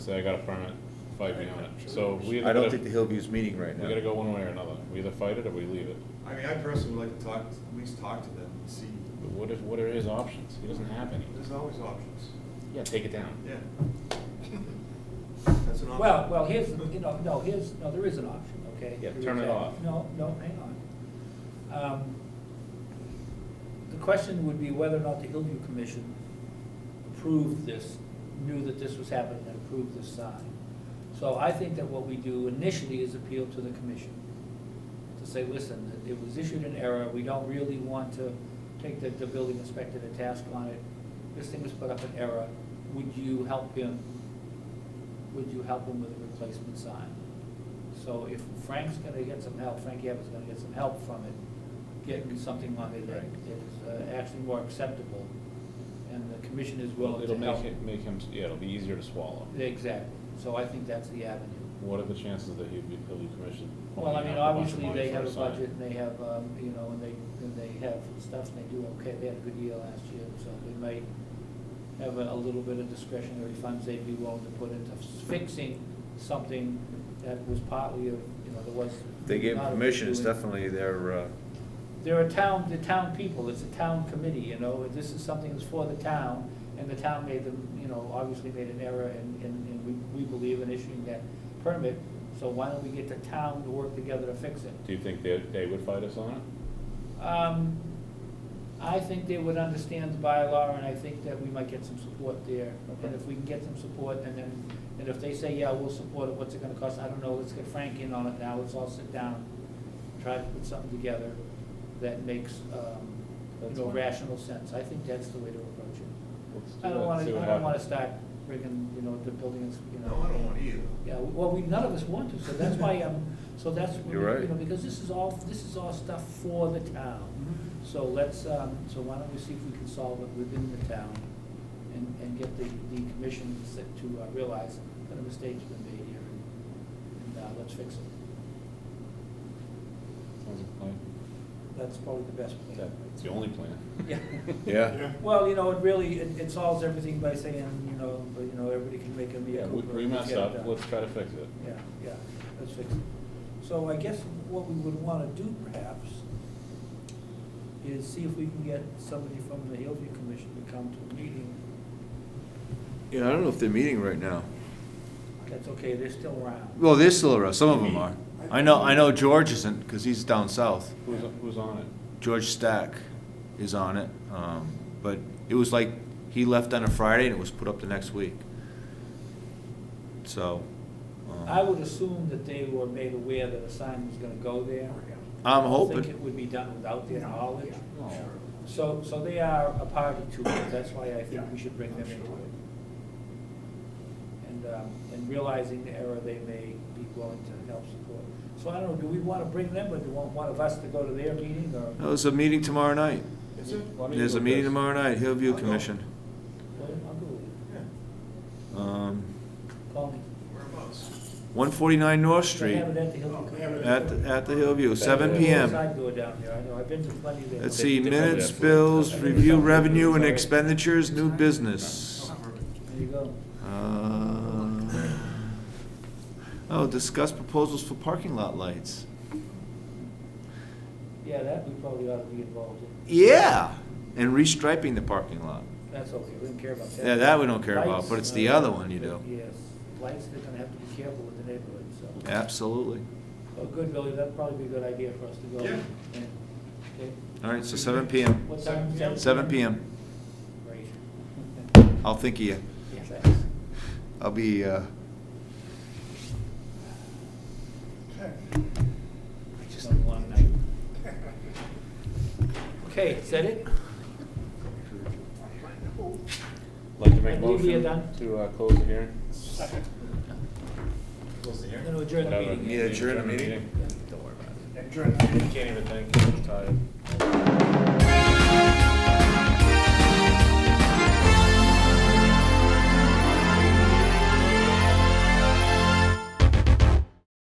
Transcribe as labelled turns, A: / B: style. A: So I got a permit, fight me on it. So we.
B: I
A: either
B: don't
A: gotta-
B: think the Hillview's meeting right
A: We gotta
B: now.
A: go one way or another. We either fight it or we leave it.
C: I mean, I personally would like to talk, at least talk to them and see,
A: But what if, what are his options? He doesn't have any.
C: there's always options,
A: Yeah, take it down.
C: yeah. That's an option.
D: Well, well, here's, you know, no, here's, no, there is an option, okay?
A: Yeah,
D: There is
A: turn it
D: that.
A: off.
D: No, no, hang on. Um, The question would be whether or not the Hillview Commission approved this, knew that this was happening and approved this sign. So I think that what we do initially is appeal to the commission to say, listen, it was issued in error, we don't really want to take the, the building inspector to task on it. This thing was put up in error, would you help him would you help him with a replacement sign? So if Frank's gonna get some help, Frank Evans gonna get some help from it, getting something on it that is uh, actually more acceptable, and the commission is
A: Well,
D: willing
A: it'll
D: to
A: make
D: help.
A: it, make him, yeah, it'll be easier to swallow.
D: Exactly, so I think that's the avenue.
A: What are the chances that he'd be, he'll be commissioned?
D: Well, I
A: pulling
D: mean,
A: out a bunch of
D: obviously,
A: money
D: they
A: for
D: have a
A: sign?
D: budget, and they have, um, you know, and they, and they have stuff, and they do okay, they had a good year last year, so they may have a, a little bit of discretionary funds they'd be willing to put into fixing something that was partly of, you know, there was.
B: They gave
D: not a
B: permission, it's
D: doing-
B: definitely their, uh,
D: They're a town, the town people, it's a town committee, you know, this is something that's for the town, and the town made them, you know, obviously made an error, and, and, and we, we believe in issuing that permit, so why don't we get the town to work together to fix it?
A: Do you think they, they would fight us on it?
D: Um, I think they would understand the bylaw, and I think that we might get some support there. And if we can get some support, and then, and if they say, yeah, we'll support it, what's it gonna cost? I don't know, let's get Frank in on it now, let's all sit down, try to put something together that makes, um, you
A: That's
D: know,
A: fine.
D: rational sense. I think that's the way to approach it.
A: Let's do
D: I
A: that,
D: don't wanna,
A: see what
D: I don't wanna
A: happens.
D: start rigging, you know, the buildings, you know.
C: No, I don't want either.
D: Yeah, well, we, none of us want to, so that's why, um, so that's, you
B: You're right.
D: know, because this is all, this is all stuff for the town.
A: Mm-hmm.
D: So let's, um, so why don't we see if we can solve it within the town and, and get the, the commission to sit- to uh, realize that a mistake's been made here and, and, uh, let's fix it.
A: Sounds like a plan.
D: That's probably the best plan.
A: That- It's the only plan.
D: Yeah.
B: yeah.
D: Well, you know, it really, it, it solves everything by saying, you know, but, you know, everybody can make a mea
A: Yeah, we,
D: culpa
A: we
D: and
A: messed
D: get it
A: up,
D: done.
A: let's try to fix it.
D: Yeah, yeah, let's fix it. So I guess what we would wanna do perhaps is see if we can get somebody from the Hillview Commission to come to a meeting.
B: Yeah, I don't know if they're meeting right now.
D: That's okay, they're still around.
B: Well, they're still around, some of them are. I know, I know George isn't, because he's down south.
A: Who's, who's on it?
B: George Stack is on it, um, but it was like, he left on a Friday and it was put up the next week. So. um,
D: I would assume that they were made aware that a sign was gonna go there.
B: I'm
D: I think
B: hoping,
D: it would be done without their knowledge.
A: No.
B: Oh.
D: So, so they are a party to it, that's why I think we should bring them into it. And, um, and realizing the error, they may be willing to help support. So I don't know, do we wanna bring them, or do you want one of us to go to their meeting, or?
B: no, there's a meeting tomorrow night.
C: Is it?
A: Why don't you
B: There's
A: go
B: a meeting
A: first?
B: tomorrow night, Hillview
C: I'll go.
B: Commission.
D: Well, I'll go with you.
C: Yeah,
B: Um,
D: Call me.
C: whereabouts?
B: one forty-nine North Street.
D: They have it at the Hillview.
C: Oh, they have it
B: At, the- at the Hillview, seven
A: Saturday.
B: PM.
D: Side door down here, I know, I've been to plenty of them.
B: Let's see,
A: They- they probably have
B: minutes,
A: food.
B: bills, review revenue and expenditures, new business.
D: There you go.
B: Uh, Oh, discuss proposals for parking lot lights.
D: Yeah, that we probably ought to be involved in,
B: Yeah, and restriping the parking lot.
D: that's okay, we don't care about that.
B: Yeah, that we don't care about,
D: Lights,
B: but it's the
D: uh,
B: other one you do.
D: Yes, lights, they're gonna have to be careful with the neighborhood, so.
B: Absolutely.
D: Oh, good, Billy, that'd probably be a good idea for us to go.
C: Yeah.
D: And- okay.
B: All right, so seven PM,
D: What time?
C: Seven
B: seven PM.
D: Great.
B: I'll think of you.
D: Yeah, thanks.
B: I'll be, uh,
D: Just a long night. Okay, is that it?
A: Like to make a
D: I believe we are
A: motion
D: done.
A: to, uh, close the hearing?
C: Close the
D: I'm
C: hearing.
D: gonna adjourn the
A: Whatever.
D: meeting.
B: Yeah, adjourn the meeting.
A: Don't worry about it. Can't even think, I'm tired.